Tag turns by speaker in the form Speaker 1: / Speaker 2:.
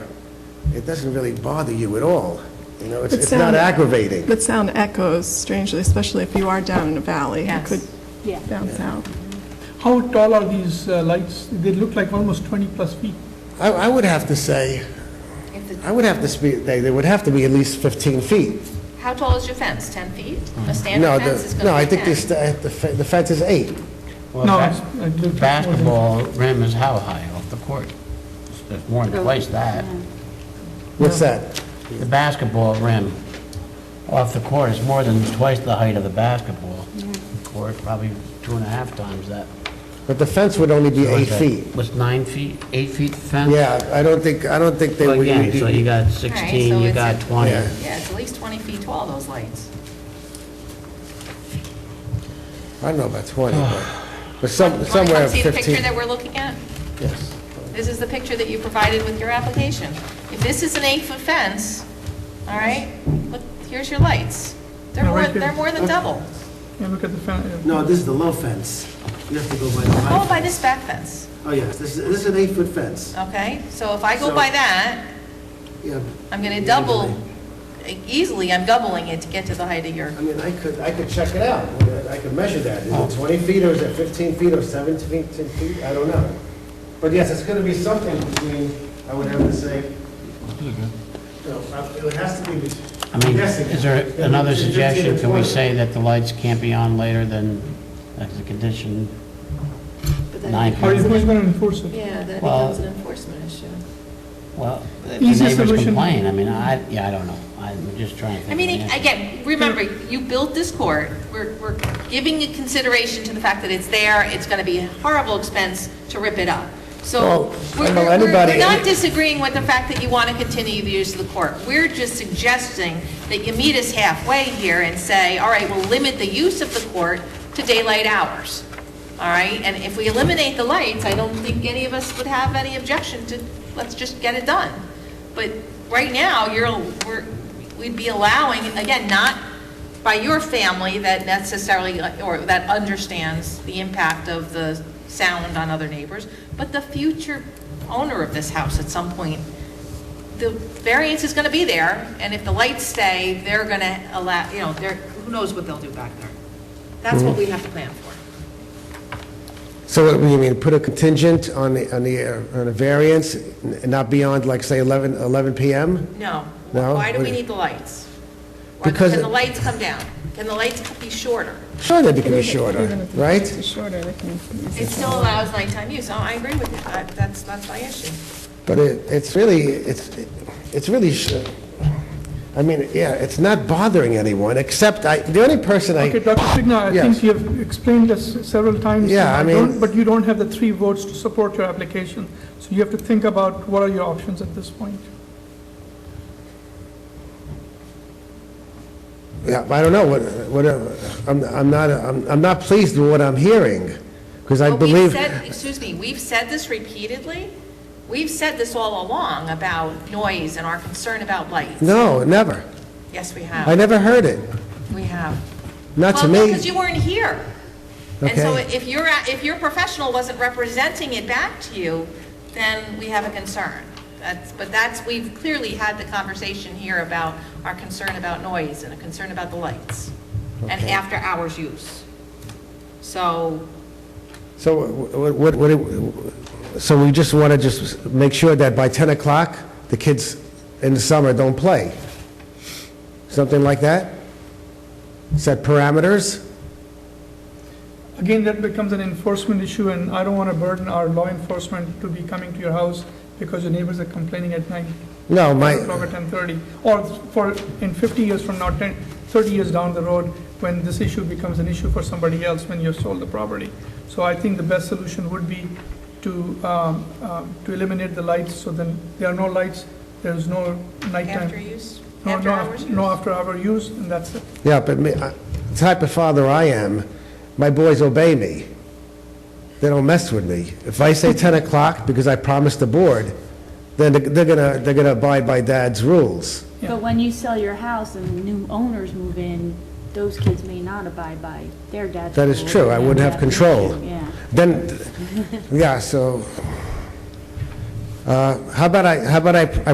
Speaker 1: it doesn't really bother you at all. You know, it's
Speaker 2: But
Speaker 1: it's not
Speaker 2: sound-
Speaker 1: aggravating.
Speaker 2: But sound echoes strangely, especially if you are down in a valley. It
Speaker 3: Yes.
Speaker 4: Yeah.
Speaker 2: could bounce out.
Speaker 5: How tall are these uh, lights? They look like almost 20-plus feet.
Speaker 1: I, I would have to say, I would have to speak, they, they would have to be at least 15 feet.
Speaker 3: How tall is your fence? 10 feet? A
Speaker 1: No,
Speaker 3: standard
Speaker 1: the-
Speaker 3: fence is going to be 10.
Speaker 1: No, I think this, the the fe- the fence is eight.
Speaker 6: Well,
Speaker 5: No,
Speaker 6: bas-
Speaker 5: it's- I looked at more than-
Speaker 6: Basketball rim is how high off the court? It's more
Speaker 3: Oh,
Speaker 6: than twice that.
Speaker 1: What's that?
Speaker 6: The basketball rim off the court is more than twice the height of the basketball court, probably two and a half times that.
Speaker 1: But the fence would only be eight
Speaker 6: What's that?
Speaker 1: feet.
Speaker 6: What's nine feet, eight feet fence?
Speaker 1: Yeah, I don't think, I don't think they
Speaker 6: Well,
Speaker 1: would.
Speaker 6: Again, so you got
Speaker 3: so
Speaker 6: 16, you
Speaker 3: it's
Speaker 6: got
Speaker 3: a-
Speaker 6: 20.
Speaker 1: Yeah.
Speaker 3: Yeah, it's at least 20 feet tall, those lights.
Speaker 1: I don't know about 20, but, but some-
Speaker 3: Want to
Speaker 1: somewhere
Speaker 3: come see the
Speaker 1: 15.
Speaker 3: picture that we're looking at?
Speaker 1: Yes.
Speaker 3: This is the picture that you provided with your application. If this is an eight-foot fence, all right, look, here's your lights. They're
Speaker 5: Yeah,
Speaker 3: more,
Speaker 5: right here.
Speaker 3: they're more than double.
Speaker 5: Yeah, look at the fan. uh,
Speaker 7: No, this is the low fence. You have to go by the
Speaker 3: Go
Speaker 7: high.
Speaker 3: by this back fence,
Speaker 7: Oh, yes, this is, this is an eight-foot fence.
Speaker 3: okay? So if I go
Speaker 7: So-
Speaker 3: by that,
Speaker 7: Yeah,
Speaker 3: I'm going to double, easily, I'm doubling it to get to the height of your,
Speaker 1: I mean, I could, I could check it out. I could measure that. Is it 20 feet, or is it 15 feet, or 17 feet? I don't know. But yes, it's going to be something between, I would have to say, you know, I- it has to be,
Speaker 6: I mean,
Speaker 1: between- guessing.
Speaker 6: is there
Speaker 1: It's gonna be
Speaker 6: another
Speaker 1: between 15 and
Speaker 6: suggestion? Can we
Speaker 1: 20.
Speaker 6: say that the lights can't be on later than, that's the condition, nine
Speaker 5: How are you
Speaker 6: feet?
Speaker 5: going to enforce it?
Speaker 3: yeah, then it
Speaker 6: Well-
Speaker 3: becomes an enforcement issue.
Speaker 6: Well, if
Speaker 5: Easy
Speaker 6: the neighbors
Speaker 5: solution.
Speaker 6: complain, I mean, I, yeah, I don't know. I'm just trying to
Speaker 3: I
Speaker 6: think. of
Speaker 3: mean,
Speaker 6: an answer.
Speaker 3: again, remember, you built this court, we're, we're giving you consideration to the fact that it's there, it's gonna be a horrible expense to rip it up. So,
Speaker 1: Well, I
Speaker 3: we're,
Speaker 1: know
Speaker 3: we're- we're
Speaker 1: anybody-
Speaker 3: not disagreeing with the fact that you wanna continue the use of the court. We're just suggesting that you meet us halfway here and say, all right, we'll limit the use of the court to daylight hours. All right, and if we eliminate the lights, I don't think any of us would have any objection to, let's just get it done. But right now, you're, we're, we'd be allowing, again, not by your family that necessarily, or that understands the impact of the sound on other neighbors, but the future owner of this house at some point, the variance is gonna be there, and if the lights stay, they're gonna allow, you know, they're, who knows what they'll do back there. That's what we have to plan for.
Speaker 1: So what do you mean, put a contingent on the, on the, uh, on a variance, n- not beyond, like, say, 11, 11 PM?
Speaker 3: No.
Speaker 1: No?
Speaker 3: Why do
Speaker 1: What-
Speaker 3: we need the lights? Or
Speaker 1: Because-
Speaker 3: can the lights come down? Can the lights be shorter?
Speaker 1: Sure, they can be shorter, right?
Speaker 2: It's shorter, they can.
Speaker 3: It still allows nighttime use, oh, I agree with you, I- that's, that's my issue.
Speaker 1: But it, it's really, it's, it's really, sh- I mean, yeah, it's not bothering anyone, except I, the only person
Speaker 5: Okay,
Speaker 1: I,
Speaker 5: Dr. Signa, I
Speaker 1: Yes.
Speaker 5: think you have explained this several times.
Speaker 1: Yeah, I
Speaker 5: don't-
Speaker 1: mean-
Speaker 5: But you don't have the three votes to support your application, so you have to think about what are your options at this point.
Speaker 1: yeah, I don't know, what, what, I'm, I'm not, I'm I'm not pleased with what I'm hearing, because I
Speaker 3: But
Speaker 1: believe,
Speaker 3: We've said, excuse me, we've said this repeatedly, we've said this all along about noise and our concern about lights.
Speaker 1: no, never.
Speaker 3: Yes, we
Speaker 1: I
Speaker 3: have,
Speaker 1: never heard it,
Speaker 3: we have.
Speaker 1: not to
Speaker 3: Well, because
Speaker 1: me.
Speaker 3: you weren't here. And so
Speaker 1: Okay.
Speaker 3: if your, if your professional wasn't representing it back to you, then we have a concern. That's, but that's, we've clearly had the conversation here about our concern about noise and a concern about the lights and after-hours use. So,
Speaker 1: So wh- what, what, what- so we just want to just make sure that by 10 o'clock, the kids in the summer don't play? Something like that? Set parameters?
Speaker 5: Again, that becomes an enforcement issue, and I don't want to burden our law enforcement to be coming to your house because your neighbors are complaining at night.
Speaker 1: No, my...
Speaker 5: 10 o'clock or 10:30, or for, in 50 years from now, 10, 30 years down the road, when this issue becomes an issue for somebody else, when you've sold the property. So I think the best solution would be to, um, um, to eliminate the lights, so then there are no lights, there is no nighttime.
Speaker 3: after use,
Speaker 5: No- no af-
Speaker 3: after-hours use.
Speaker 5: No after-hour use, and that's it.
Speaker 1: Yeah, but me, I- the type of father I am, my boys obey me. They don't mess with me. If I say 10 o'clock because I promised the board, then they're- they're gonna, they're gonna abide by dad's rules.
Speaker 5: Yeah.
Speaker 4: But when you sell your house and new owners move in, those kids may not abide by their dad's.
Speaker 1: That is
Speaker 4: rules
Speaker 1: true,
Speaker 4: and
Speaker 1: I
Speaker 4: their
Speaker 1: wouldn't have
Speaker 4: dad's
Speaker 1: control.
Speaker 4: rules, Yeah.
Speaker 1: Then, yeah, so, uh, how about I, how about I I